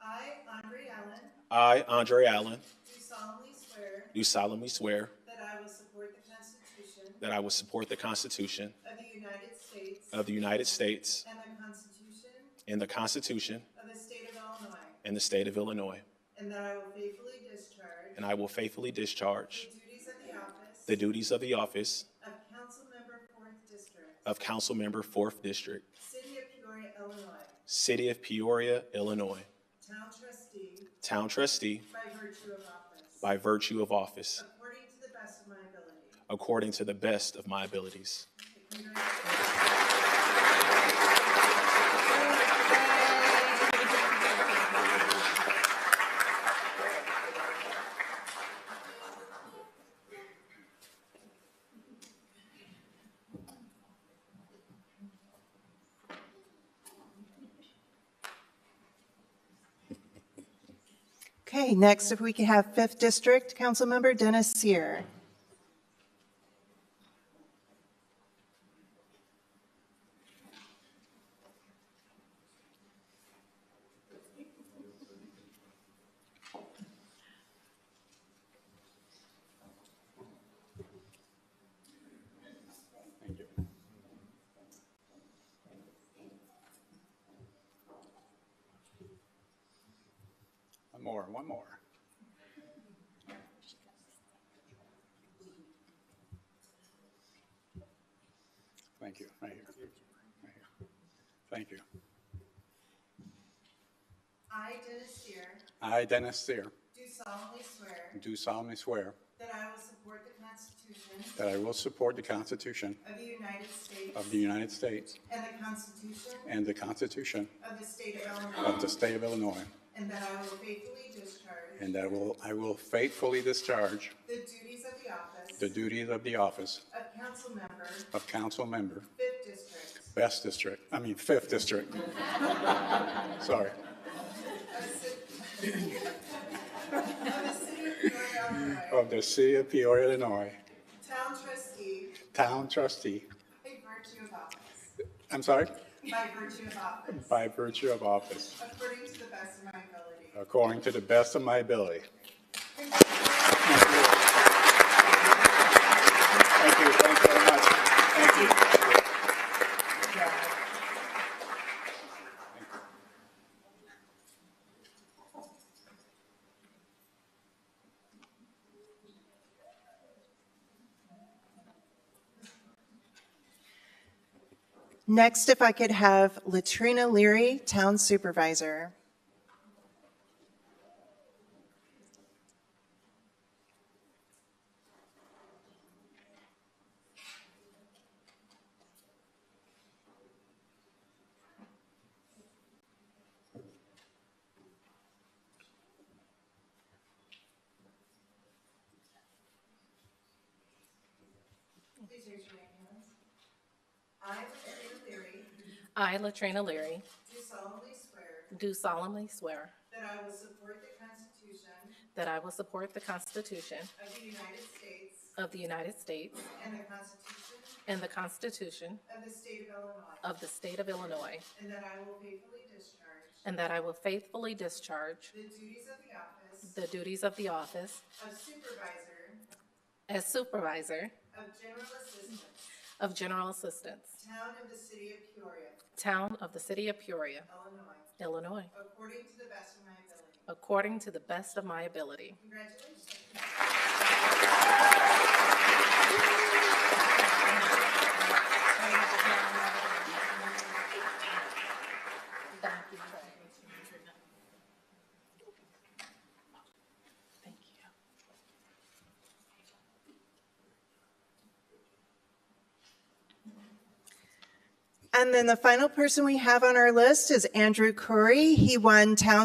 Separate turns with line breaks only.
I, Andre Allen,
I, Andre Allen,
do solemnly swear
do solemnly swear
that I will support the Constitution
that I will support the Constitution
of the United States
of the United States
and the Constitution
and the Constitution
of the State of Illinois,
and the state of Illinois,
and that I will faithfully discharge
and I will faithfully discharge
the duties of the office
the duties of the office
of Council Member Fourth District,
of Council Member, 4th District,
City of Peoria, Illinois,
City of Peoria, Illinois,
Town Trustee
Town Trustee
by virtue of office,
by virtue of office,
according to the best of my ability.
according to the best of my abilities.
Okay, next, if we could have Fifth District Councilmember Dennis Seer.
One more, one more. Thank you, right here. Right here. Thank you.
I, Dennis Seer,
I, Dennis Seer,
do solemnly swear
do solemnly swear
that I will support the Constitution
that I will support the Constitution
of the United States
of the United States
and the Constitution
and the Constitution
of the State of Illinois,
of the State of Illinois,
and that I will faithfully discharge
and that will, I will faithfully discharge
the duties of the office
the duties of the office
of council member,
of council member,
Fifth District,
Best District, I mean, Fifth District. Sorry.
of ci- of the City of Peoria, Illinois,
Of the City of Peoria, Illinois,
town trustee
Town trustee,
by virtue of office,
I'm sorry,
by virtue of office,
by virtue of office,
according to the best of my ability.
according to the best of my ability. Thank you, thank you very much. Thank you.
Next, if I could have Latrina Leary, Town Supervisor. Please raise your right hand. I, Latrina Leary,
I, Latrina Leary,
do solemnly swear
do solemnly swear
that I will support the Constitution
that I will support the Constitution
of the United States
of the United States
and the Constitution
and the Constitution
of the State of Illinois,
of the State of Illinois,
and that I will faithfully discharge
and that I will faithfully discharge
the duties of the office
the duties of the office
of Supervisor
as Supervisor
of General Assistance,
of General Assistance,
Town of the City of Peoria,
Town of the City of Peoria,
Illinois,
Illinois,
according to the best of my ability.
according to the best of my ability.
Congratulations.
Thank you. Thank you.
And then the final person we have on our list is Andrew Curry. He won Town